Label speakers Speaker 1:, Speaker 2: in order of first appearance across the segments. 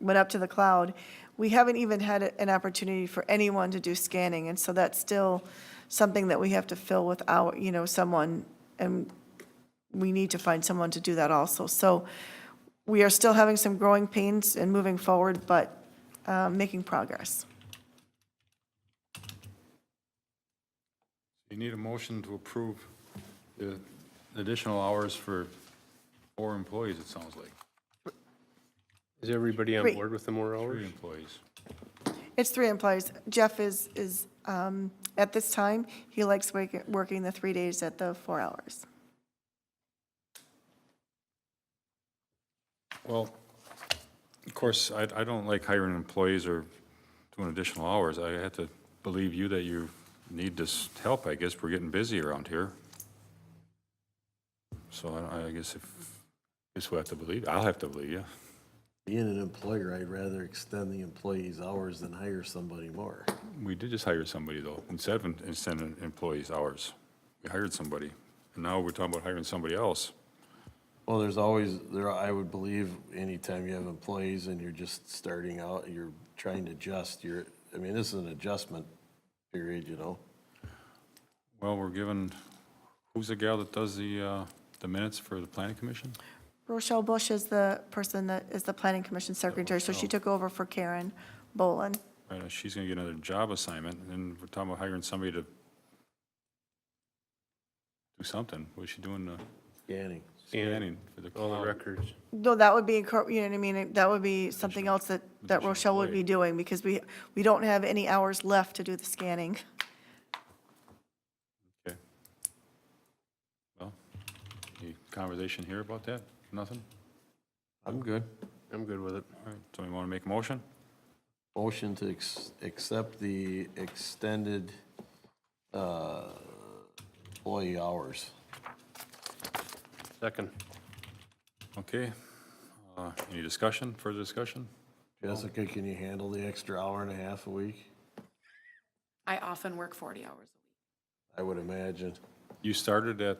Speaker 1: went up to the cloud, we haven't even had a- an opportunity for anyone to do scanning, and so that's still something that we have to fill with our, you know, someone, and we need to find someone to do that also. So we are still having some growing pains and moving forward, but uh, making progress.
Speaker 2: You need a motion to approve the additional hours for four employees, it sounds like,
Speaker 3: Is everybody on
Speaker 1: Three.
Speaker 3: board with the more
Speaker 2: three
Speaker 3: hours?
Speaker 2: employees.
Speaker 1: It's three employees. Jeff is, is, um, at this time, he likes wak- working the three days at the four hours.
Speaker 2: Well, of course, I, I don't like hiring employees or doing additional hours. I have to believe you that you need this help, I guess. We're getting busy around here. So I, I guess if, guess we have to believe, I'll have to believe you.
Speaker 4: Being an employer, I'd rather extend the employee's hours than hire somebody more.
Speaker 2: We did just hire somebody though, instead of extending employees' hours. We hired somebody, and now we're talking about hiring somebody else.
Speaker 4: Well, there's always, there, I would believe anytime you have employees and you're just starting out, you're trying to adjust, you're, I mean, this is an adjustment period, you know?
Speaker 2: Well, we're given, who's the gal that does the, uh, the minutes for the planning commission?
Speaker 1: Rochelle Bush is the person that is the planning commission secretary, so she took over for Karen Bolin.
Speaker 2: Right, uh, she's gonna get another job assignment, and then we're talking about hiring somebody to do something. What's she doing, uh,
Speaker 4: Scanning.
Speaker 2: scanning for the
Speaker 3: All the
Speaker 2: cloud?
Speaker 3: records.
Speaker 1: No, that would be, incor- you know what I mean, that would be something else that, that
Speaker 2: additional
Speaker 1: Rochelle would be
Speaker 2: employee.
Speaker 1: doing, because we, we don't have any hours left to do the scanning.
Speaker 2: Okay. Well, any conversation here about that? Nothing?
Speaker 4: I'm good.
Speaker 3: I'm good with it.
Speaker 2: All right, somebody wanna make a motion?
Speaker 4: Motion to ex- accept the extended, uh, employee hours.
Speaker 3: Second.
Speaker 2: Okay. Uh, Any discussion, further discussion?
Speaker 4: Jessica, can you handle the extra hour and a half a week?
Speaker 5: I often work 40 hours.
Speaker 4: I would imagine.
Speaker 2: You started at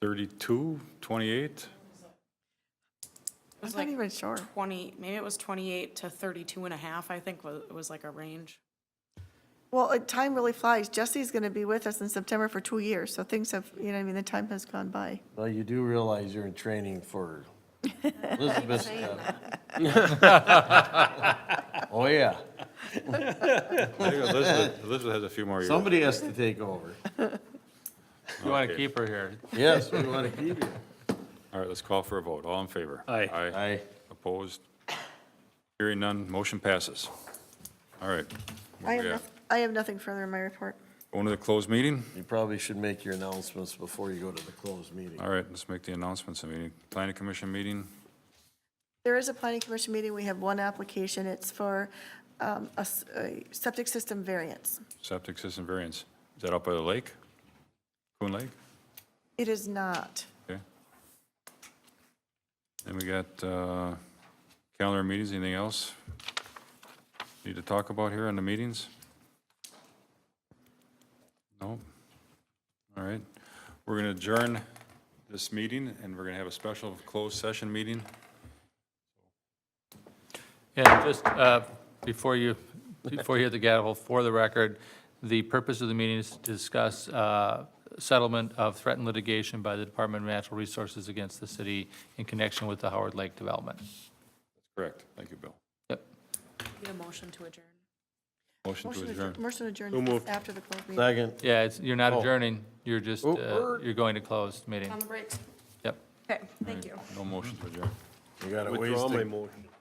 Speaker 2: 32, 28?
Speaker 5: It was
Speaker 1: I'm not
Speaker 5: like
Speaker 1: even sure.
Speaker 5: 20, maybe it was 28 to 32 and a half, I think, was, was like a range.
Speaker 1: Well, uh, time really flies. Jesse's going to be with us in September for two years, so things have, you know what I mean, the time has gone by.
Speaker 4: Well, you do realize you're in training for Elizabeth's job. Oh, yeah.
Speaker 2: I think Elizabeth, Elizabeth has a few more years.
Speaker 4: Somebody has to take over.
Speaker 3: You want
Speaker 2: Okay.
Speaker 3: to keep her here.
Speaker 4: Yes, we want to keep you.
Speaker 2: All right, let's call for a vote. All in favor?
Speaker 3: Aye.
Speaker 2: Aye.
Speaker 4: Aye.
Speaker 2: Opposed? Hearing none, motion passes. All right.
Speaker 1: I
Speaker 2: where
Speaker 1: have,
Speaker 2: we at?
Speaker 1: noth- I have nothing further in my report.
Speaker 2: Going to the closed meeting?
Speaker 4: You probably should make your announcements before you go to the closed meeting.
Speaker 2: All right, let's make the announcements. I mean, planning commission meeting,
Speaker 1: There is a planning commission meeting. We have one application. It's for um, a s- a septic system variance.
Speaker 2: septic system variance. Is that up by the lake? Coon Lake?
Speaker 1: It is not.
Speaker 2: Okay. Then we got uh, calendar meetings, anything else need to talk about here on the meetings? No? All right. We're going to adjourn this meeting, and we're going to have a special closed session meeting.
Speaker 6: Yeah, just uh, before you, before you hit the gavel, for the record, the purpose of the meeting is to discuss uh, settlement of threatened litigation by the Department of Natural Resources against the city in connection with the Howard Lake development.
Speaker 2: Correct. Thank you, Bill.
Speaker 6: Yep.
Speaker 5: Need a motion to adjourn.
Speaker 2: Motion to
Speaker 1: Motion adjourn-
Speaker 2: adjourn.
Speaker 1: motion adjourned after the closed meeting.
Speaker 4: Second.
Speaker 6: Yeah, it's, you're not adjourning, you're just,
Speaker 4: Oh,
Speaker 6: uh,
Speaker 4: er.
Speaker 6: you're going to close meeting.
Speaker 5: On the breaks.
Speaker 6: Yep.
Speaker 5: Okay, thank you.
Speaker 2: No motion to adjourn.
Speaker 4: You got a ways
Speaker 3: Withdraw my
Speaker 4: to,
Speaker 3: motion.